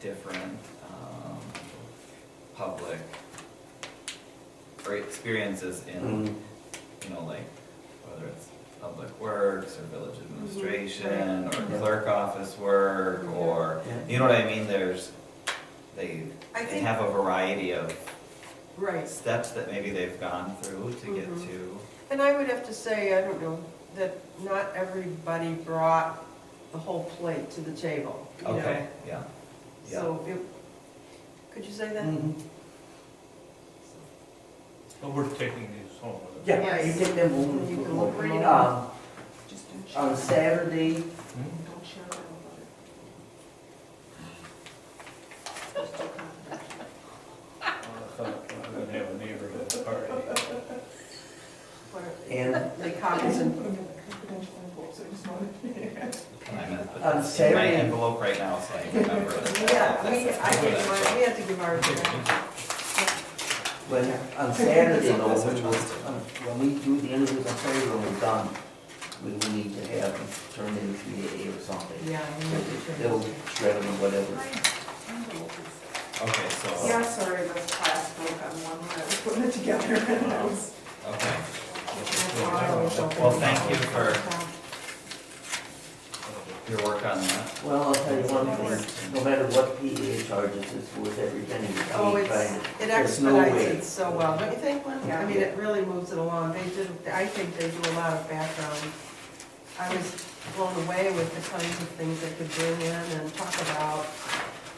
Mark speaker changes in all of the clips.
Speaker 1: different, um, public or experiences in, you know, like, whether it's public works or village
Speaker 2: Mm-hmm.
Speaker 1: administration or
Speaker 2: Yeah.
Speaker 1: clerk office work or, you know what I mean, there's, they,
Speaker 2: I
Speaker 1: they
Speaker 2: think-
Speaker 1: have a variety of
Speaker 2: Right,
Speaker 1: steps that maybe they've gone through to get
Speaker 2: Mhm.
Speaker 1: to.
Speaker 2: and I would have to say, I don't know, that not everybody brought the whole plate to the table, you know?
Speaker 1: Okay, yeah, yeah. Mm.
Speaker 2: So, it, could you say that?
Speaker 3: Mm-hmm.
Speaker 4: But we're taking these home with us.
Speaker 3: Yeah, you take them home.
Speaker 2: You can look, read 'em.
Speaker 3: Um,
Speaker 2: Just
Speaker 3: On Saturday,
Speaker 4: Hmm?
Speaker 2: Don't share it.
Speaker 4: I thought I would have a neighborhood party.
Speaker 3: and
Speaker 2: The copies and,
Speaker 1: And I'm gonna put
Speaker 3: On
Speaker 1: this in my
Speaker 3: Saturday.
Speaker 1: envelope right now, so I remember. it.
Speaker 2: yeah, we,
Speaker 1: That's-
Speaker 2: I think, my- we had to give our,
Speaker 3: when, on Saturday though,
Speaker 1: That's what
Speaker 3: when
Speaker 1: John's
Speaker 3: we- on- when we do the interviews on Saturday, when we're done, we will need to have them turned in three A or something.
Speaker 2: yeah. we had to turn
Speaker 3: They'll
Speaker 2: it.
Speaker 3: shred them or whatever.
Speaker 1: Okay, so,
Speaker 5: Yeah, sorry, this class broke on one when I was putting it together. It was-
Speaker 1: okay.
Speaker 2: Well,
Speaker 1: thank you Your work on that?
Speaker 3: Well, I'll tell you one thing, no matter what PEA charges, it's worth every penny you
Speaker 2: Oh,
Speaker 3: pay.
Speaker 2: it's,
Speaker 3: but
Speaker 2: it
Speaker 3: there's no
Speaker 2: expedites
Speaker 3: way.
Speaker 2: it so well, don't you think, Lynn? I
Speaker 5: Yeah.
Speaker 2: mean, it really moves it along, they did, I think they do a lot of background. I was blown away with the kinds of things they could bring in and talk about,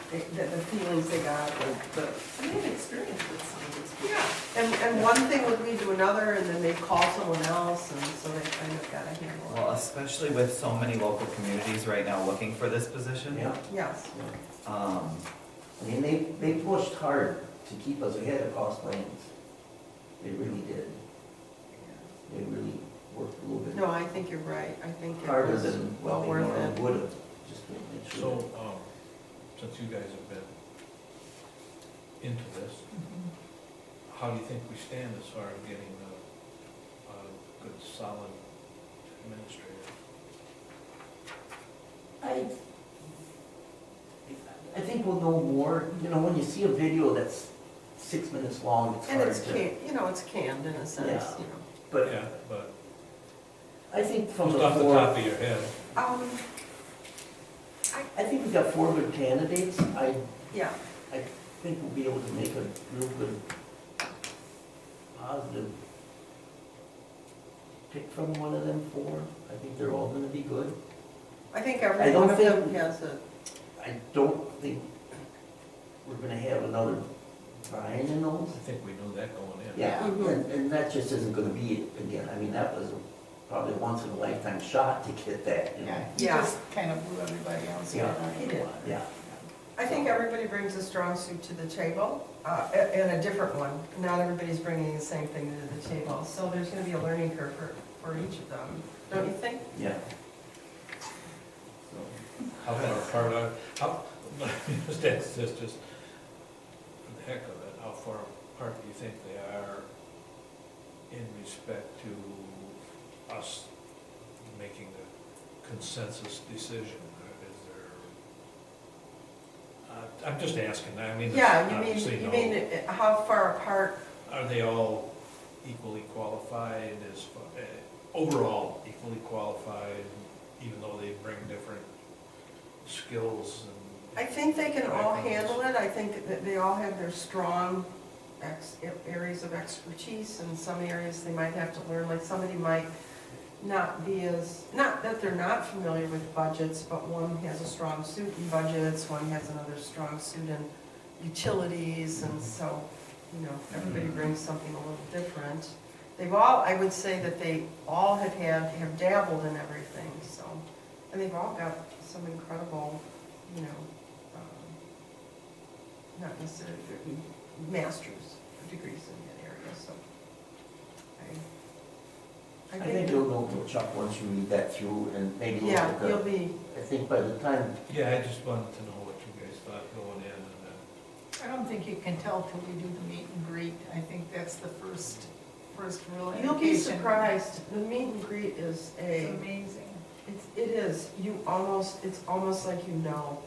Speaker 2: the, the feelings they got, the, the
Speaker 5: I made an experience with some of these people.
Speaker 2: Yeah, and, and one thing would lead to another, and then they call someone else, and so they kind of got a handle on
Speaker 1: Well, especially with so many local communities right now looking for this position.
Speaker 3: Yeah,
Speaker 2: it. Yes,
Speaker 1: Um,
Speaker 3: I mean, they, they pushed hard to keep us ahead of cost plans. They really did. They really worked a little bit.
Speaker 2: no, I think you're right, I think it
Speaker 3: harder
Speaker 2: was
Speaker 3: than what
Speaker 2: well
Speaker 3: we
Speaker 2: worth
Speaker 3: normally
Speaker 2: it.
Speaker 3: would have, just to make
Speaker 4: So,
Speaker 3: sure.
Speaker 4: um, since you guys have been into this, how do you think we stand as far as getting a, a good solid administrator?
Speaker 3: I, I think we'll know more, you know, when you see a video that's six minutes long, it's
Speaker 2: And
Speaker 3: hard
Speaker 2: it's
Speaker 3: to.
Speaker 2: canned, you know, it's canned in a sense,
Speaker 3: Yeah.
Speaker 2: you know.
Speaker 3: But
Speaker 4: Yeah, but
Speaker 3: I think from
Speaker 4: just
Speaker 3: the
Speaker 4: off the top
Speaker 3: four,
Speaker 4: of your head,
Speaker 2: Um,
Speaker 3: I think we've got four good candidates. I
Speaker 2: yeah,
Speaker 3: think we'll be able to make a real good positive pick from one of them four. I think they're all gonna be good.
Speaker 2: I think
Speaker 3: I
Speaker 2: every
Speaker 3: don't
Speaker 2: one of them
Speaker 3: think-
Speaker 2: has a,
Speaker 3: I don't think we're gonna have another Brian in those.
Speaker 4: I think we knew that going in.
Speaker 3: Yeah,
Speaker 2: Mhm.
Speaker 3: and, and that just isn't gonna be it again. I mean, that was probably a once in a lifetime shot to get that, you know?
Speaker 2: yeah.
Speaker 5: kind of blew everybody else.
Speaker 3: Yeah.
Speaker 2: He did.
Speaker 3: Yeah.
Speaker 2: I think everybody brings a strong suit to the table, uh, a- and a different one. Not everybody's bringing the same thing to the table, so there's gonna be a learning curve for, for each of them, don't you think?
Speaker 3: Yeah.
Speaker 4: How far apart are, how, just ask this, just for the heck of it, how far apart do you think they are in respect to us making the consensus decision? Is there, uh, I'm just asking, I mean, it's
Speaker 2: Yeah, you
Speaker 4: obviously
Speaker 2: mean, you
Speaker 4: no.
Speaker 2: mean, uh, how far apart,
Speaker 4: Are they all equally qualified as, far- eh, overall equally qualified, even though they bring different skills and?
Speaker 2: I think they can all
Speaker 4: backgrounds?
Speaker 2: handle it, I think that they all have their strong ex, areas of expertise, and some areas they might have to learn, like somebody might not be as, not that they're not familiar with budgets, but one has a strong suit in budgets, one has another strong suit in utilities, and so, you know, everybody
Speaker 3: Hmm.
Speaker 2: brings something a little different. They've all, I would say that they all have had, have dabbled in everything, so, and they've all got some incredible, you know, um, not necessarily their masters degrees in that area, so. I-
Speaker 3: I think you'll know, till Chuck, once you read that through and maybe look at
Speaker 2: Yeah,
Speaker 3: the.
Speaker 2: you'll be,
Speaker 3: I think by the time,
Speaker 4: Yeah, I just wanted to know what you guys thought going in and then,
Speaker 6: I don't think you can tell till we do the meet and greet. I think that's the first, first real indication.
Speaker 2: you'll be surprised, the meet and greet is
Speaker 6: It's
Speaker 2: a,
Speaker 6: amazing.
Speaker 2: it's, it is, you almost, it's almost like you know.